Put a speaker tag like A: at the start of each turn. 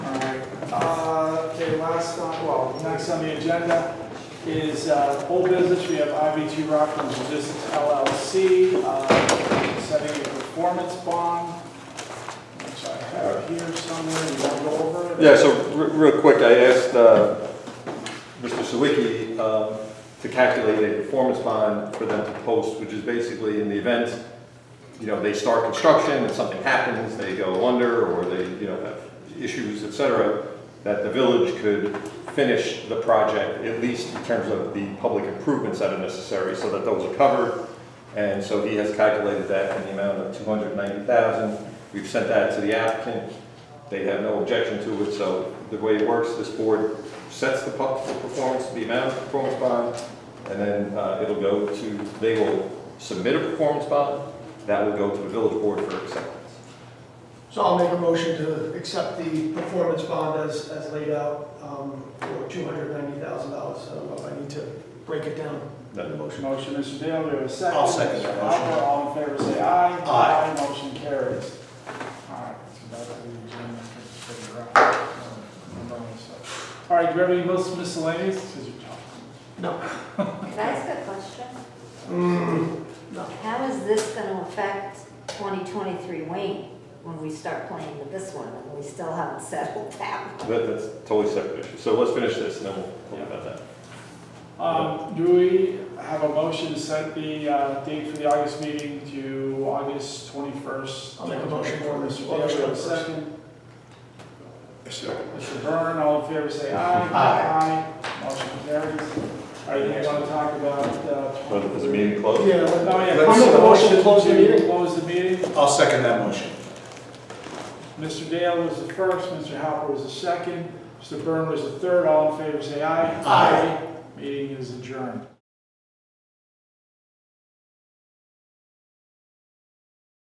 A: last, uh, well, next on the agenda is uh, old business. We have IBT Rockland Logistics LLC, uh, setting a performance bond, which I have here somewhere. You want to go over it?
B: Yeah, so re- real quick, I asked uh, Mr. Sawicki um, to calculate a performance bond for them to post, which is basically in the event, you know, they start construction and something happens, they go under, or they, you know, have issues, et cetera, that the village could finish the project, at least in terms of the public improvements that are necessary, so that those are covered. And so he has calculated that in the amount of two hundred ninety thousand. We've sent that to the applicant. They have no objection to it, so the way it works, this board sets the pub- the performance, the amount of performance bond, and then uh, it'll go to, they will submit a performance bond, that will go to the village board for acceptance.
C: So I'll make a motion to accept the performance bond as, as laid out um, for two hundred ninety thousand dollars. I don't know if I need to break it down in the
B: Then-
C: motion.
A: Motion, Mr. Dale, do we have a second?
D: I'll second that
A: Mr.
D: motion.
A: Hopper, all in favor, say aye.
D: Aye.
A: Motion carries. All right, so that's the agenda. Let's figure out. Um, I'm on this side. All right, do you have any mis- miscellaneous? This is your job.
E: Can I ask a question?
C: Mm, No,
E: How is this going to affect 2023 Wayne when we start playing with this one and we still haven't settled that? one?
B: That, that's totally separate issue. So let's finish this, and then we'll talk about that.
A: Um, do we have a motion to set the, uh, date for the August meeting to August twenty-first?
C: I'll make a motion for
A: Mr.
C: this.
A: Dale, do we have a second?
D: Second.
A: Mr. Byrne, all in favor, say aye.
D: Aye.
A: Aye. Motion carries. All right, you want to talk about, uh?
B: But is the meeting closed?
C: yeah,
A: Oh,
C: let-
A: yeah.
D: Let's-
A: I'll make a
C: to close the meeting.
A: Close the meeting.
D: I'll second that motion.
A: Mr. Dale was the first, Mr. Halper was the second, Mr. Byrne was the third. All in favor, say aye.
D: Aye.
A: Meeting is adjourned.